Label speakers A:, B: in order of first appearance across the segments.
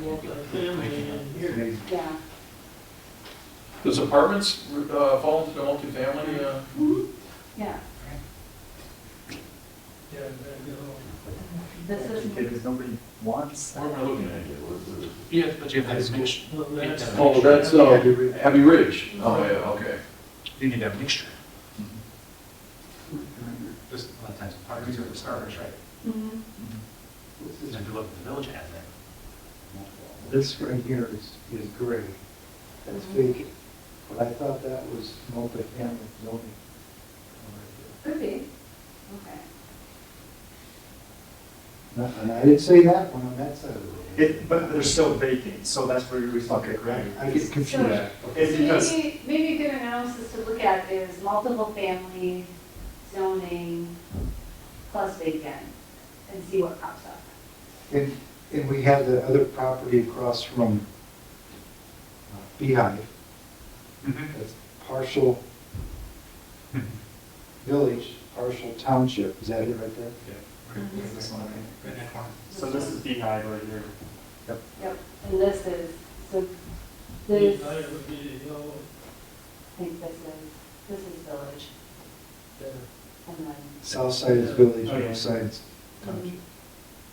A: more family in here.
B: Yeah,
C: Does apartments uh, fall into the multifamily? uh,
B: yeah.
A: Yeah,
D: Oh,
A: I
B: This is,
D: Because nobody wants
C: Where am I looking at?
D: that.
E: Yeah, but you have to mix,
A: know. Well, that's-
C: Oh, that's uh, Abbey Ridge. Oh, yeah, okay.
E: you need to have mixture. This, a lot of times, parties are the starters, right?
B: mhm.
E: And if you look at the village has that. multiple.
F: This right here is, is gray. That's vacant. But I thought that was multifamily zoning.
B: could be, okay.
F: Not- And I didn't say that one on that side of the road.
D: It, but they're still vacant, so that's where we fuck it, right?
F: I get confused.
D: It's
B: So
D: because,
B: maybe, maybe a good analysis to look at is multiple family zoning plus vacant and see what pops up.
F: And, and we have the other property across from uh, Beehive.
D: Mm-hmm.
E: Mhm.
F: That's partial village, partial township. Is that it right there?
D: It's this one, right?
E: Right in that corner.
D: so this is beehive right here.
B: Yep, and this is, so this, I
A: Beehive would be, you know,
B: think this is, this is village
A: yeah.
B: and then,
F: South side is village,
D: Oh, yeah.
F: north side is township.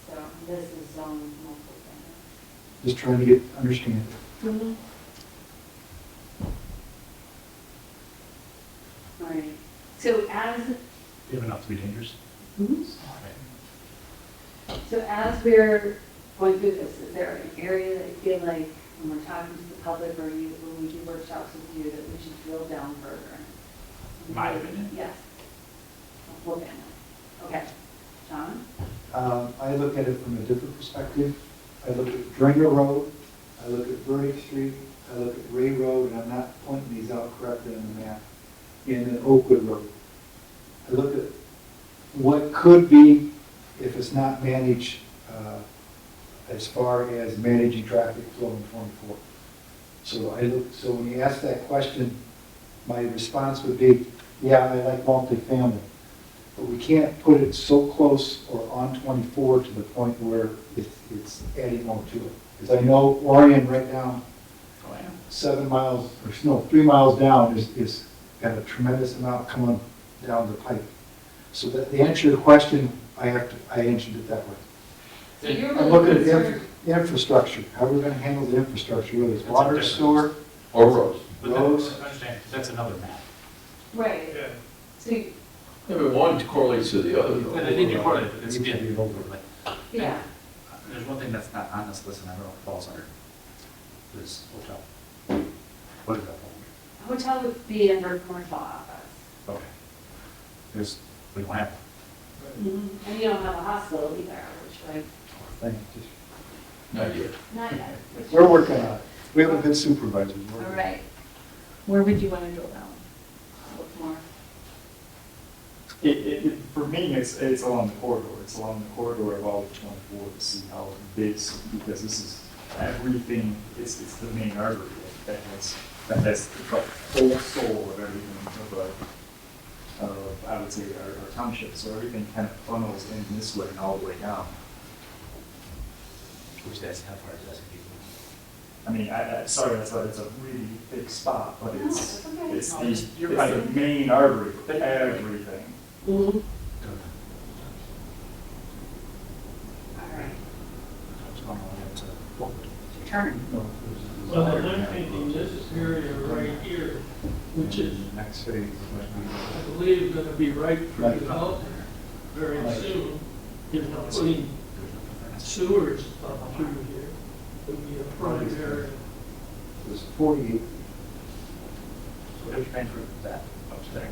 B: so this is zone multiple
F: Just trying to get, understand.
B: family. All right, so as, Mm-hmm.
E: You have enough to be dangerous.
B: So as we're going through this, is there an area that you feel like when we're talking to the public or you, when we do workshops with you, that we should drill down further?
E: My opinion.
B: Yes. Whole family. Okay. John?
F: Um, I look at it from a different perspective. I look at Dringer Road, I look at Burdick Street, I look at Ray Road, and I'm not pointing these out correctly on the map, and then Oakwood Road. I look at what could be, if it's not managed, uh, as far as managing traffic flow in 24. So I look, so when you ask that question, my response would be, yeah, I like multifamily. But we can't put it so close or on 24 to the point where it's, it's adding more to it. Because I know Orion right now,
E: Oh, yeah.
F: seven miles, or no, three miles down is, is got a tremendous amount coming down the pipe. So the, the answer to the question, I have to, I answered it that way.
B: So you're
F: I'm looking at inf- infrastructure, how we're gonna handle the infrastructure, whether it's
E: That's a
F: water,
E: different-
F: sewer,
C: Or roads.
E: But that-
F: Roads.
E: understand, that's another map.
B: Right.
A: Yeah.
B: So, you-
C: Maybe one correlates to the other.
E: But I think you're right, but it's,
F: It should
E: yeah,
F: be an overlay.
B: yeah.
E: there's one thing that's not on this list and I don't know if it falls under, this hotel. What is that called?
B: Hotel would be under commercial office.
E: Okay. There's, we don't have.
F: Mm-hmm.
B: And you don't have a hospital either, which like,
F: Thank you.
C: Not yet.
B: not yet. which-
F: We're working on it. We have a good supervisor. We're
B: All
F: working on it.
B: right. Where would you want to drill down? Look more.
D: It, it, it- for me, it's, it's along the corridor, it's along the corridor of all of twenty-four to see how this, because this is everything, it's, it's the main artery that has, that has the whole soul of everything of a, of, Uh, I would say, our, our township, so everything kind of funnels in this way and all the way down.
E: Which that's how far does it
D: I mean, I, I, sorry, that's a, it's a really big spot, but
B: No,
D: it's,
B: it's okay.
D: it's
E: No,
D: the, it's
E: you're right.
D: the main artery, of everything.
B: All
E: go?
B: right.
E: It's going all the way up to Oakwood.
B: Turn.
A: Well, then I'm thinking this area right here, which is,
F: Next phase.
A: I believe, gonna be right for development very soon. If not putting
E: There's nothing there.
A: sewers up through here, would be a prime area.
F: There's 48
E: So what are you trying to prove that up there?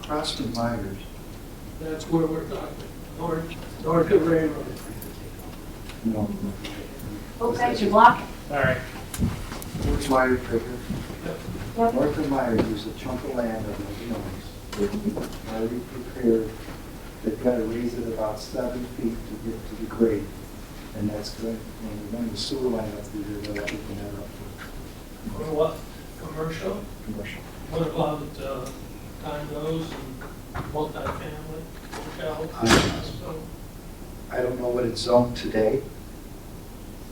F: across from Myers.
A: That's where we're talking, north, north of railroad.
F: No.
B: Both sides are blocking.
D: All right.
F: Where's Myers right here?
B: Yep.
F: North of Myers, there's a chunk of land that nobody owns. Now we prepared, they've got to raise it about seven feet to get to the grade. And that's going, and we're running the sewer line up through there, they'll have to open that up
A: Or what, commercial?
F: for commercial.
A: What about uh, condos and multifamily hotels?
F: I don't know what it's zoned today.